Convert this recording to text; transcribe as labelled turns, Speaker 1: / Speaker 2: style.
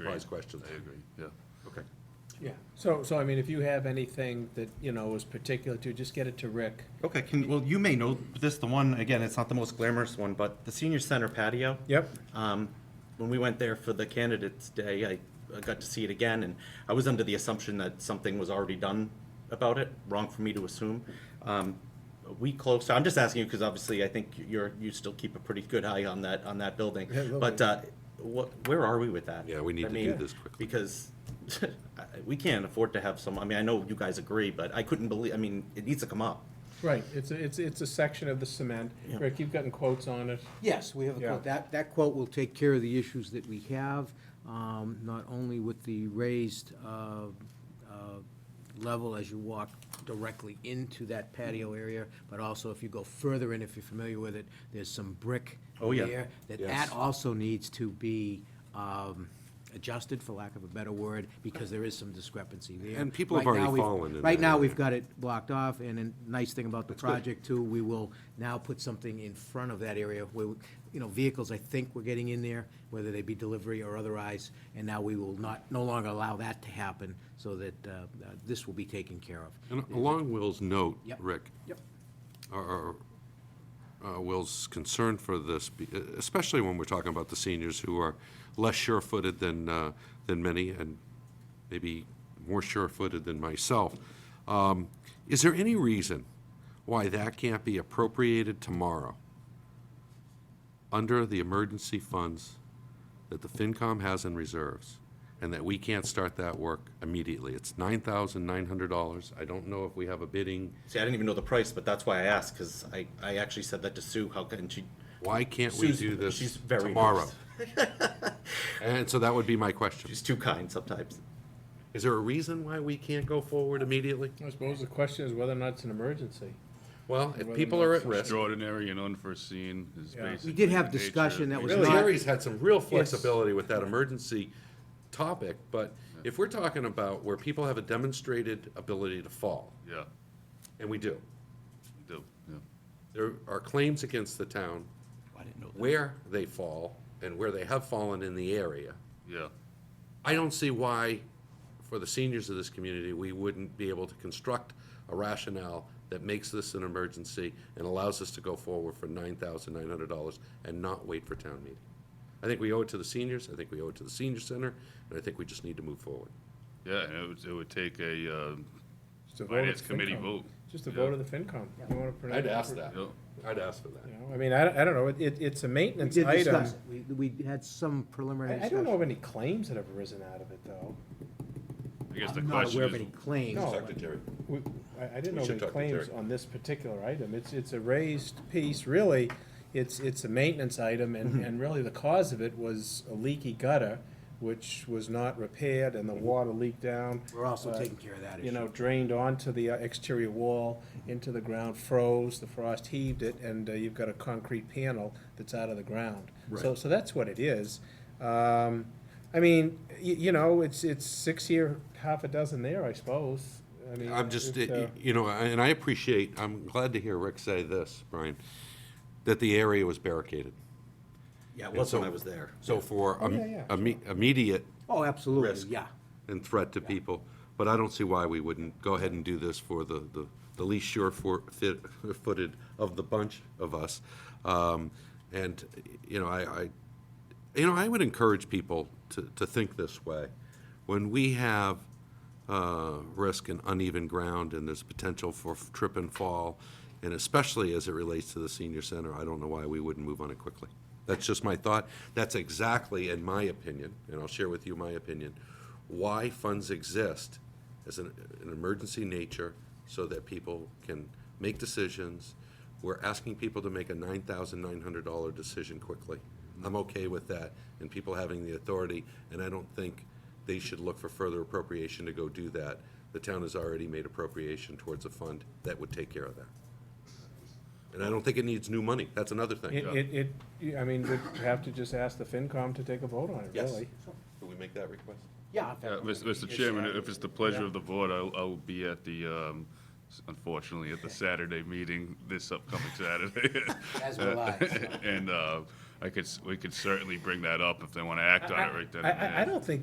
Speaker 1: wise questions.
Speaker 2: I agree, yeah.
Speaker 1: Okay.
Speaker 3: Yeah, so, so I mean, if you have anything that, you know, is particular to, just get it to Rick.
Speaker 4: Okay, can, well, you may know this, the one, again, it's not the most glamorous one, but the senior center patio.
Speaker 3: Yep.
Speaker 4: Um, when we went there for the candidates day, I, I got to see it again, and I was under the assumption that something was already done about it, wrong for me to assume. Um, a week closer, I'm just asking you, because obviously I think you're, you still keep a pretty good eye on that, on that building.
Speaker 3: Yeah, a little
Speaker 4: But,
Speaker 3: bit.
Speaker 4: uh, what, where are we with that?
Speaker 2: Yeah, we need
Speaker 4: I
Speaker 2: to do
Speaker 4: mean,
Speaker 2: this quickly.
Speaker 4: Because I- we can't afford to have some, I mean, I know you guys agree, but I couldn't believe, I mean, it needs to come up.
Speaker 3: Right, it's, a- it's, it's a section of the cement.
Speaker 4: Yeah.
Speaker 3: Rick, you've gotten quotes on it.
Speaker 5: Yes, we have a
Speaker 3: Yeah.
Speaker 5: quote. That, that quote will take care of the issues that we have, um, not only with the raised uh, uh, level as you walk directly into that patio area, but also if you go further in, if you're familiar with it, there's some brick
Speaker 4: Oh, yeah.
Speaker 5: there. That
Speaker 2: Yes.
Speaker 5: that also needs to be um, adjusted, for lack of a better word, because there is some discrepancy there.
Speaker 2: And people have
Speaker 5: Right now,
Speaker 2: already
Speaker 5: we've-
Speaker 2: fallen in
Speaker 5: Right
Speaker 2: that
Speaker 5: now,
Speaker 2: area.
Speaker 5: we've got it blocked off, and a nice thing about the project too, we will now put something in front of that area where, we- you know, vehicles, I think, were getting in there, whether they be delivery or otherwise, and now we will not, no longer allow that to happen, so that uh, uh, this will be taken care of.
Speaker 2: And along Will's note,
Speaker 5: Yep.
Speaker 2: Rick,
Speaker 5: Yep.
Speaker 2: or, or, uh, Will's concern for this, be- especially when we're talking about the seniors who are less sure-footed than, uh, than many, and maybe more sure-footed than myself. Um, Is there any reason why that can't be appropriated tomorrow under the emergency funds that the FinCom has in reserves, and that we can't start that work immediately? It's $9,900. I don't know if we have a bidding
Speaker 4: See, I didn't even know the price, but that's why I asked, because I, I actually said that to Sue, how can she?
Speaker 2: Why can't we
Speaker 4: Susan,
Speaker 2: do this
Speaker 4: she's very
Speaker 2: tomorrow?
Speaker 4: nice.
Speaker 2: And so that would be my question.
Speaker 4: She's too kind sometimes.
Speaker 2: Is there a reason why we can't go forward immediately?
Speaker 3: I suppose the question is whether or not it's an emergency.
Speaker 2: Well,
Speaker 3: Whether
Speaker 2: if
Speaker 3: or
Speaker 2: people
Speaker 3: not
Speaker 2: are
Speaker 3: it's
Speaker 2: at risk,
Speaker 6: Extraordinary and unforeseen is
Speaker 3: Yeah. We
Speaker 6: basically.
Speaker 5: We did have
Speaker 6: the nature
Speaker 5: discussion that
Speaker 6: of
Speaker 5: was
Speaker 2: really,
Speaker 5: not,
Speaker 2: Harry's had some real flexibility with that emergency topic, but if we're talking about where people have a demonstrated ability to fall,
Speaker 6: the- Yeah,
Speaker 2: and we do,
Speaker 6: we do, yeah.
Speaker 2: there are claims against the town
Speaker 4: Oh, I didn't know
Speaker 2: where they fall and where they have fallen in the area.
Speaker 6: Yeah,
Speaker 2: I don't see why, for the seniors of this community, we wouldn't be able to construct a rationale that makes this an emergency and allows us to go forward for nine thousand nine hundred dollars and not wait for town meeting. I think we owe it to the seniors, I think we owe it to the senior center, and I think we just need to move forward.
Speaker 6: yeah, and it would, it would take a, uh,
Speaker 3: Just a vote of
Speaker 6: Finance
Speaker 3: the
Speaker 6: committee
Speaker 3: FinCom.
Speaker 6: vote.
Speaker 3: Just a
Speaker 6: Yeah.
Speaker 3: vote of the FinCom. You wanna pronounce-
Speaker 2: I'd ask that,
Speaker 6: Yeah.
Speaker 2: I'd ask for that.
Speaker 3: You know, I mean, I, don't- I don't know, it- it, it's a
Speaker 5: we
Speaker 3: maintenance
Speaker 5: did
Speaker 3: item.
Speaker 5: discuss, it. we, we had some preliminary
Speaker 3: uh, I, I
Speaker 5: discussion.
Speaker 3: don't know of any claims that have arisen out of it, though.
Speaker 6: I guess the
Speaker 5: I'm not
Speaker 6: question
Speaker 5: aware of any
Speaker 6: is,
Speaker 5: claims.
Speaker 3: No.
Speaker 2: Talk to Jerry.
Speaker 3: We, I, I didn't
Speaker 2: We
Speaker 3: know
Speaker 2: should
Speaker 3: any
Speaker 2: talk to
Speaker 3: claims
Speaker 2: Terry.
Speaker 3: on this particular item. It's, it's a raised piece, really, it's, it's a maintenance item,
Speaker 2: Mm-hmm.
Speaker 3: and, and really the cause of it was a leaky gutter, which was not repaired, and the
Speaker 2: Mm-hmm.
Speaker 3: water leaked down.
Speaker 5: We're also
Speaker 3: uh,
Speaker 5: taking care of that issue.
Speaker 3: You know, drained onto the uh, exterior wall, into the ground, froze, the frost heaved it, and uh, you've got a concrete panel that's out of the ground. So, so that's what it is. Um, I mean, y- you know, it's, it's six here, half a dozen there, I suppose. I mean,
Speaker 2: I'm just,
Speaker 3: it, uh,
Speaker 2: y- you know, and I appreciate, I'm glad to hear Rick say this, Brian, that the area was barricaded.
Speaker 4: Yeah, it was when I was there.
Speaker 2: So for
Speaker 3: Oh, yeah, yeah,
Speaker 2: im- imme- immediate
Speaker 5: Oh, absolutely,
Speaker 2: risk.
Speaker 5: yeah.
Speaker 2: and threat to people, but I don't see why we wouldn't go ahead and do this for the, the, the least sure for, fit, footed of the bunch of us. Um, and, you know, I, I, you know, I would encourage people to, to think this way. When we have, uh, risk and uneven ground and there's potential for f- trip and fall, and especially as it relates to the senior center, I don't know why we wouldn't move on it quickly. That's just my thought. That's exactly, in my opinion, and I'll share with you my opinion, why funds exist as an, an emergency nature so that people can make decisions. We're asking people to make a nine thousand nine hundred dollar decision quickly. I'm okay with that, and people having the authority, and I don't think they should look for further appropriation to go do that. The town has already made appropriation towards a fund that would take care of that. And I don't think it needs new money, that's another
Speaker 3: It,
Speaker 2: thing.
Speaker 3: uh, it, it, you- I mean, we'd have to just ask the FinCom to take a vote on it,
Speaker 2: Yes.
Speaker 3: really.
Speaker 2: Can we make that request?
Speaker 5: Yeah.
Speaker 6: yeah, Mr. Mr. Uh, Chairman, if it's the pleasure of the board, I'll, I'll be at the, um, s- unfortunately, at the Saturday meeting this upcoming Saturday. uh,
Speaker 5: As will I, so.
Speaker 6: And, uh, I could, s- we could certainly bring that up if they want to act on it right then
Speaker 3: I,
Speaker 6: and there.
Speaker 3: I, I don't think